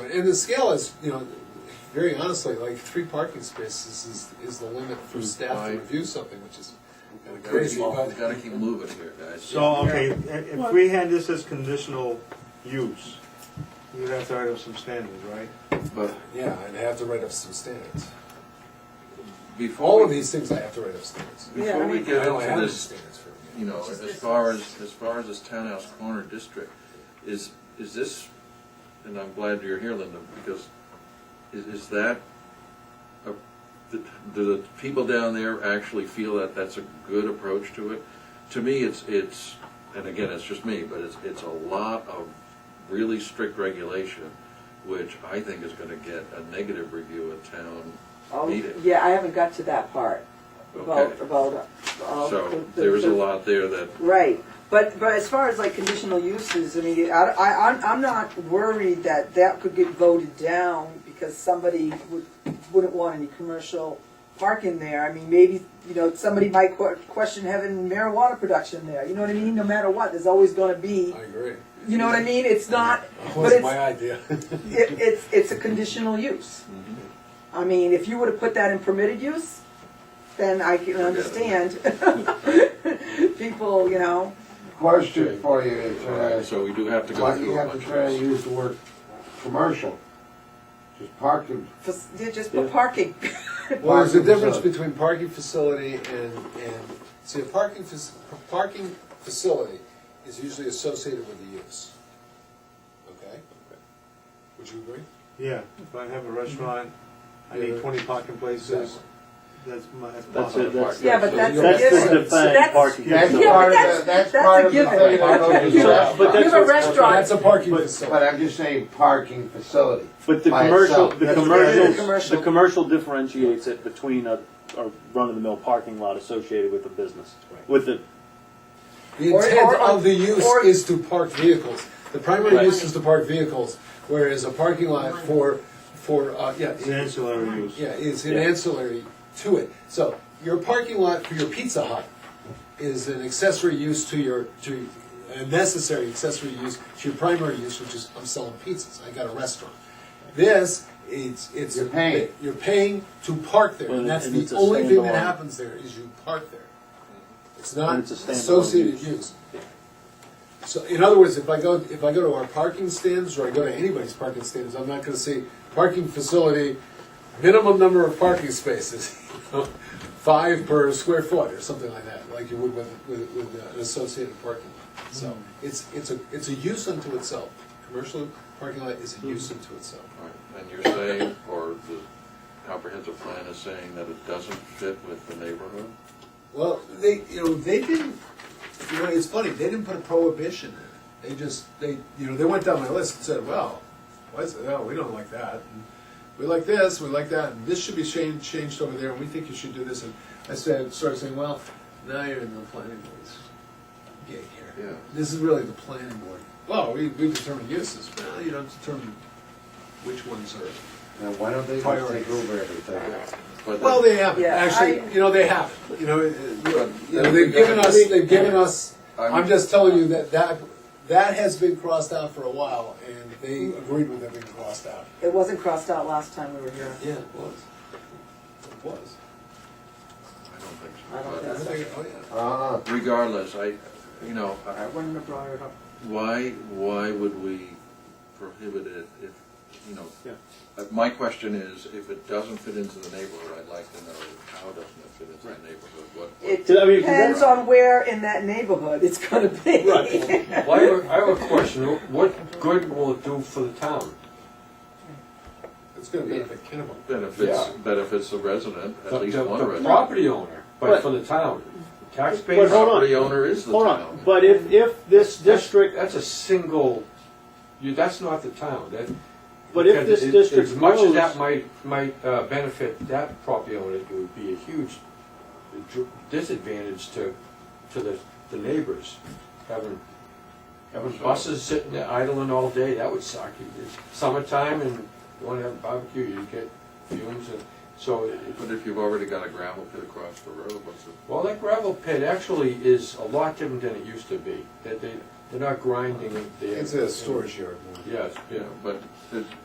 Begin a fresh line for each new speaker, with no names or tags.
and the scale is, you know, very honestly, like three parking spaces is, is the limit for
Hmm.
staff
Why?
to review something, which is kinda
Crazy,
crazy, but.
we gotta keep moving here, guys.
So, okay, i- if we had this as conditional use, you'd have to write up some standards, right?
But
Yeah, and I have to write up some standards. All
before
of
we,
these things I have to write up standards.
Yeah, I
before we
mean-
I
get
don't
into
have any
this,
standards for them.
you know,
Just
as
this
far
is-
as, as far as this townhouse corner district, is, is this, and I'm glad you're here, Linda, because is, is that, a- do do the people down there actually feel that that's a good approach to it? To me, it's, it's, and again, it's just me, but it's, it's a lot of really strict regulation, which I think is gonna get a negative review at town
Oh,
meeting.
Yeah, I haven't got to that part about,
Okay.
about. uh, the-
So
the-
there is a
the-
lot there that,
Right, but, but as far as like conditional uses, I mean, I, I, I'm- I'm not worried that that could get voted down because somebody would, wouldn't want any commercial parking there. I mean, maybe, you know, somebody might que- question having marijuana production there, you know what I mean? No matter what, there's always gonna be,
I agree.
you know what I mean? It's not,
That
but
was
it's,
my idea.
it, it's, it's a conditional use.
Mm-hmm.
I mean, if you would've put that in permitted use, then I can understand people, you know.
Question for you, it's, uh,
so we do have to go
why do you
through a
have to
bunch of
try to
this.
use the word commercial? Just park it,
For, they're just for parking.
Well, there's a
Parking
difference
facility.
between parking facility and, and, see, a parking, fac- parking facility is usually associated with the use. Okay? Would you agree?
Yeah, if I have a restaurant, I need
Yeah.
twenty parking places,
Exactly.
that's my, that's
That's
possible.
it, that's.
Yeah, but
So
that's
you're-
a
That's
So
the
given. So
defined
that's,
parking.
that's
zone.
Yeah, but
part of
that's-
the, that's
that's
part
a
of the
given.
thing I don't
So,
do
but
You
that's
have a
what's-
That's
restaurant,
a parking
But
facility.
I'm just saying parking facility.
But the
by
commercial,
itself.
the
That's what it is.
commercial,
Commercial.
the commercial differentiates it between a, a run-of-the-mill parking lot associated with a business,
Right.
with the,
The
Or-
intent
or-
of the use
or-
is to park vehicles. The primary
Right.
use is to park vehicles, whereas a parking lot for, for, uh, yeah.
It's an ancillary use.
Yeah, is an
Yeah.
ancillary to it. So your parking lot for your Pizza Hut is an accessory use to your, to, a necessary accessory use to your primary use, which is, I'm selling pizzas, I got a restaurant. This, it's, it's.
You're paying.
You're paying to park there,
Well,
and that's
and
the
it's a
only thing that
standalone.
happens there, is you park there. It's not
And it's a standalone
associated
use.
use. So, in other words, if I go, if I go to our parking stands, or I go to anybody's parking stands, I'm not gonna say, parking facility, minimum number of parking spaces, you know, five per square foot, or something like that, like you would with, with, with an associated parking lot. So, it's, it's a, it's a use unto itself, commercial parking lot is a use unto itself.
Right, And you're saying, or the comprehensive plan is saying that it doesn't fit with the neighborhood?
Well, they, you know, they didn't, you know, it's funny, they didn't put a prohibition in it. They just, they, you know, they went down my list and said, well, why is it, no, we don't like that. And We like this, we like that, and this should be changed, changed over there, and we think you should do this. And I said, started saying, well, now you're in the planning board's gig here.
Yeah.
This is really the planning board. Well, we, we determine uses, well, you don't determine which ones are.
Now, why don't they just take over everything?
But
Well,
that-
they haven't,
Yeah,
actually,
I-
you know, they haven't, you know, it- it-
But-
you know, they've given us, they've given us,
I'm-
I'm just telling you that that, that has been crossed out for a while, and they agreed with it being crossed out.
it wasn't crossed out last time we were here.
Yeah, it was. It was.
I don't think
I don't
so.
I
think
think- oh, yeah.
Uh-uh.
But Regardless, I, you know, I-
I wouldn't have brought it up.
why, why would we prohibit it if, you know?
Yeah.
uh, My question is, if it doesn't fit into the neighborhood, I'd like to know how doesn't it fit into the neighborhood? What,
It
I mean,
depends
what-
on where in that neighborhood it's gonna be.
Well, I have a- I have a question, what good will it do for the town?
It's gonna benefit Kennebunk.
benefits,
Yeah.
benefits the resident,
The-
at least
the-
one
the
resident.
Property owner, but
But-
for the town,
But
taxpayers.
hold on.
Property owner is the town.
Hold on, but if, if this district,
That's a single, you, that's not the town, that.
But if this
because it-
district
As much as
grows-
that might, might uh, benefit that property owner, it would be a huge dr- disadvantage to, to the, the neighbors. Having, having buses sitting there idling all day, that would suck. You- it's Summertime and you wanna have a barbecue, you get fumes and, so it-
But if you've already got a gravel pit across the road, what's the
well, that gravel pit actually is a lot different than it used to be. That they, they're not grinding it there.
It's a storage yard.
Yes, yeah.
Yeah, but it-